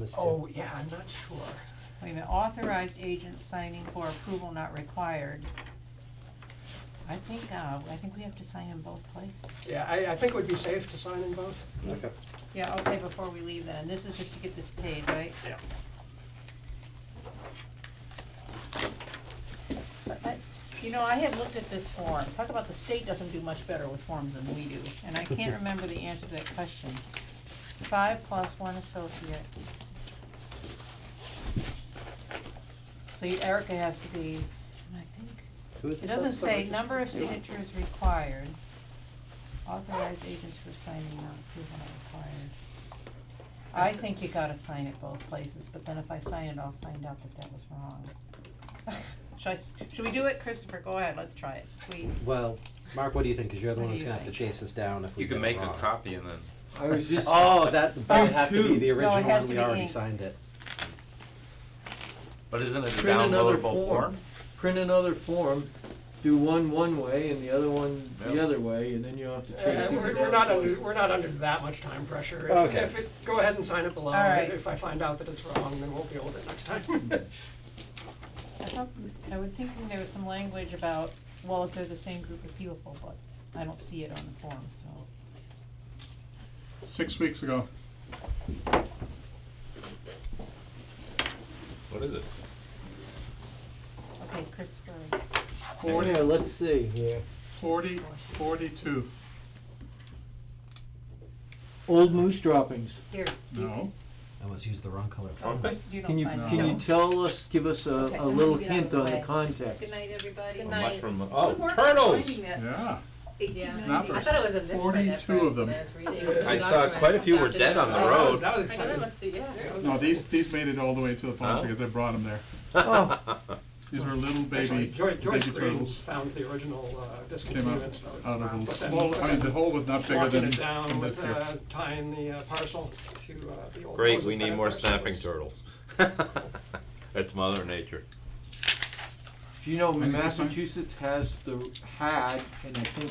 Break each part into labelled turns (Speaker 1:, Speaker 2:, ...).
Speaker 1: this to?
Speaker 2: Oh, yeah, I'm not sure.
Speaker 3: Wait a minute, authorized agents signing for approval not required. I think, uh, I think we have to sign in both places.
Speaker 2: Yeah, I, I think it would be safe to sign in both.
Speaker 1: Okay.
Speaker 3: Yeah, okay, before we leave then, this is just to get this paid, right?
Speaker 2: Yeah.
Speaker 3: But I- You know, I had looked at this form, talk about the state doesn't do much better with forms than we do, and I can't remember the answer to that question. Five plus one associate. So you- Erica has to be, and I think,
Speaker 1: Who is
Speaker 3: it doesn't
Speaker 1: that's the
Speaker 3: say
Speaker 1: register-
Speaker 3: number of signatures required, authorized agents for signing not approval not required. I think you gotta sign it both places, but then if I sign it, I'll find out that that was wrong. Should I, s- should we do it, Christopher, go ahead, let's try it, we,
Speaker 1: Well, Mark, what do you think? Cause you're the
Speaker 3: What
Speaker 1: one
Speaker 3: do
Speaker 1: who's
Speaker 3: you
Speaker 1: gonna have to
Speaker 3: think?
Speaker 1: chase us down if we
Speaker 4: You
Speaker 1: get
Speaker 4: can
Speaker 1: it
Speaker 4: make a
Speaker 1: wrong.
Speaker 4: copy and then,
Speaker 5: I was just.
Speaker 1: Oh, that, but it has to
Speaker 5: Two.
Speaker 1: be the
Speaker 3: No, it
Speaker 1: original
Speaker 3: has
Speaker 1: one,
Speaker 3: to
Speaker 1: we
Speaker 3: be
Speaker 1: already
Speaker 3: inked.
Speaker 1: signed it.
Speaker 4: but isn't it a
Speaker 5: Print another
Speaker 4: downloadable form?
Speaker 5: Print another form, do one one way and the other one the
Speaker 4: Yeah.
Speaker 5: other way, and then you have to
Speaker 2: Uh,
Speaker 5: chase
Speaker 2: We're,
Speaker 5: it.
Speaker 2: we're not under, we're not under that much time pressure. If-
Speaker 1: Okay.
Speaker 2: If it, go ahead and sign it below.
Speaker 3: All right.
Speaker 2: If I find out that it's wrong, then we'll deal with it next time.
Speaker 3: I thought, I was thinking there was some language about, well, if they're the same group of people, but I don't see it on the form, so.
Speaker 6: Six weeks ago.
Speaker 4: What is it?
Speaker 3: Okay, Christopher,
Speaker 5: Forty, uh, let's see here,
Speaker 6: 40, 42.
Speaker 5: old moose droppings.
Speaker 3: here, you
Speaker 6: No.
Speaker 1: I almost used the wrong color.
Speaker 3: Oh, Chris, you
Speaker 5: Can
Speaker 3: don't
Speaker 5: you,
Speaker 3: sign it,
Speaker 5: can you
Speaker 3: so-
Speaker 5: tell us, give us a,
Speaker 3: Okay,
Speaker 5: a
Speaker 3: let me
Speaker 5: little
Speaker 3: get out of
Speaker 5: hint
Speaker 3: the
Speaker 5: on the
Speaker 3: way.
Speaker 5: context?
Speaker 3: Good night, everybody.
Speaker 7: Good
Speaker 4: A
Speaker 7: night.
Speaker 4: mushroom, oh,
Speaker 3: We're
Speaker 4: turtles!
Speaker 3: finding that.
Speaker 6: Yeah.
Speaker 7: Yeah.
Speaker 6: Snappers.
Speaker 7: I thought it was in this one at
Speaker 6: 42
Speaker 7: first,
Speaker 6: of them.
Speaker 7: when I was reading it.
Speaker 4: I
Speaker 7: The
Speaker 4: saw
Speaker 7: documents
Speaker 4: quite a few were
Speaker 7: after
Speaker 4: dead
Speaker 7: that.
Speaker 4: on the
Speaker 2: That was-
Speaker 4: road.
Speaker 2: That was
Speaker 7: I know, that
Speaker 2: exciting.
Speaker 7: must be, yeah.
Speaker 2: That was
Speaker 6: No,
Speaker 2: exciting.
Speaker 6: these these made it all the way to the pond
Speaker 4: Huh?
Speaker 6: because I brought them there. These were little
Speaker 2: Actually,
Speaker 6: baby
Speaker 2: Joy- Joyce
Speaker 6: baby
Speaker 2: Green
Speaker 6: turtles.
Speaker 2: Found the original uh,
Speaker 6: Came out
Speaker 2: discontinuance note.
Speaker 6: out of
Speaker 2: But
Speaker 6: a
Speaker 2: then-
Speaker 6: small.
Speaker 2: but
Speaker 6: I mean,
Speaker 2: then
Speaker 6: the hole was not bigger
Speaker 2: Walking
Speaker 6: than,
Speaker 2: it
Speaker 6: than
Speaker 2: down
Speaker 6: this
Speaker 2: with
Speaker 6: year.
Speaker 2: uh, tying the uh, parcel to uh, the old.
Speaker 4: Great,
Speaker 2: closest
Speaker 4: we need
Speaker 2: bed
Speaker 4: more
Speaker 2: parcel
Speaker 4: snapping
Speaker 2: was-
Speaker 4: turtles. That's mother nature.
Speaker 5: Do you know
Speaker 6: I need to sign?
Speaker 5: Massachusetts has the, had, and I think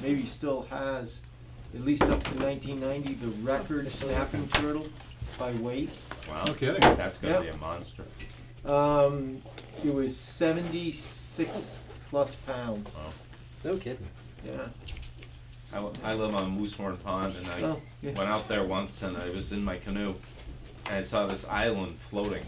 Speaker 5: maybe still has, at least up to nineteen ninety, the record snapping turtle by weight?
Speaker 4: Wow,
Speaker 6: No kidding.
Speaker 4: that's
Speaker 5: Yeah.
Speaker 4: gonna be a monster.
Speaker 5: Um, it was seventy-six plus pounds,
Speaker 1: No kidding.
Speaker 5: yeah.
Speaker 4: I, li- I live on Moosehorn Pond and I
Speaker 5: Oh, yeah.
Speaker 4: went out there once and I was in my canoe and I saw this island floating.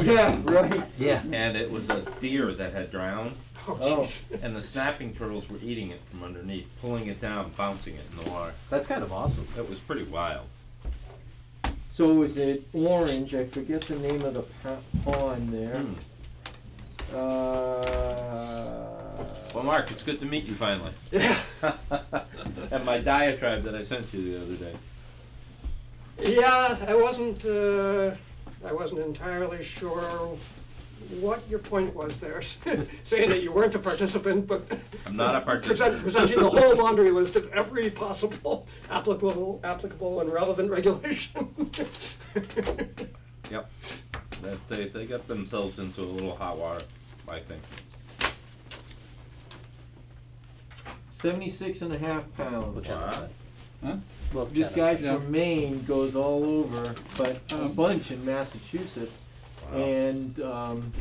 Speaker 5: Yeah, right.
Speaker 1: Yeah.
Speaker 4: And it was a deer that had drowned
Speaker 5: Oh,
Speaker 4: and the snapping turtles were eating it from underneath, pulling it down, bouncing it in the water.
Speaker 1: That's kind of awesome.
Speaker 4: That was pretty wild.
Speaker 5: so was it orange? I forget the name of the pa- pond there.
Speaker 4: Hmm.
Speaker 5: Uh,
Speaker 4: Well, Mark, it's good to meet you finally. and my diatribe that I sent you the other day.
Speaker 2: Yeah, I wasn't, uh, I wasn't entirely sure what your point was there, saying that you weren't a participant, but.
Speaker 4: I'm not a
Speaker 2: present-
Speaker 4: participant.
Speaker 2: Presenting the whole laundry list of every possible applicable, applicable and relevant regulation.
Speaker 4: Yep. That they, they got themselves into a little hot water, I think.
Speaker 5: seventy-six and a half
Speaker 1: We'll
Speaker 5: pounds.
Speaker 1: chat about that.
Speaker 6: Huh?
Speaker 1: We'll
Speaker 5: This
Speaker 1: chat
Speaker 5: guy
Speaker 1: about that.
Speaker 6: Yeah.
Speaker 5: from Maine goes all over, but a
Speaker 2: Hmm.
Speaker 6: Um,
Speaker 5: bunch in Massachusetts,
Speaker 4: Wow.
Speaker 5: and um,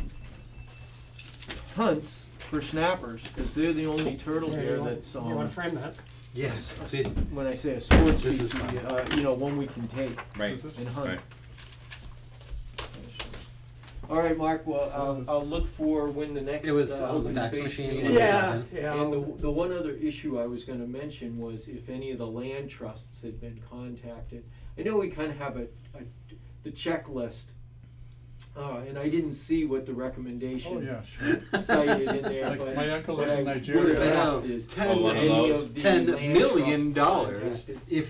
Speaker 5: hunts for snappers because they're the only turtle here that's
Speaker 2: You wanna
Speaker 5: um,
Speaker 2: frame that?
Speaker 1: Yes, see,
Speaker 5: when I say a sports
Speaker 1: This is fun.
Speaker 5: species, uh, you know, one we can take.
Speaker 4: Right.
Speaker 6: This is-
Speaker 5: And
Speaker 4: Right.
Speaker 5: hunt. All right, Mark, well, I'll,
Speaker 6: Yes.
Speaker 5: I'll look for when the next.
Speaker 1: It was
Speaker 5: uh,
Speaker 1: on the
Speaker 5: open
Speaker 1: fax
Speaker 5: space
Speaker 1: machine
Speaker 5: meeting
Speaker 1: when
Speaker 5: is.
Speaker 1: we got
Speaker 2: Yeah,
Speaker 1: it.
Speaker 2: yeah.
Speaker 5: And
Speaker 6: um,
Speaker 5: the, the one other issue I was gonna mention was if any of the land trusts had been contacted. I know we kind of have a, a, the checklist, uh, and I didn't see what the
Speaker 6: Oh
Speaker 5: recommendation
Speaker 6: yeah. Sure.
Speaker 5: cited in there,
Speaker 6: Like,
Speaker 5: but.
Speaker 6: my uncle
Speaker 5: what
Speaker 6: lives in
Speaker 5: I would've
Speaker 6: Nigeria.
Speaker 1: I know.
Speaker 5: asked is,
Speaker 1: Ten-
Speaker 4: Oh, one of
Speaker 5: any
Speaker 4: those.
Speaker 5: of the
Speaker 1: ten
Speaker 5: land
Speaker 1: million
Speaker 5: trusts
Speaker 1: dollars
Speaker 5: contacted?
Speaker 1: if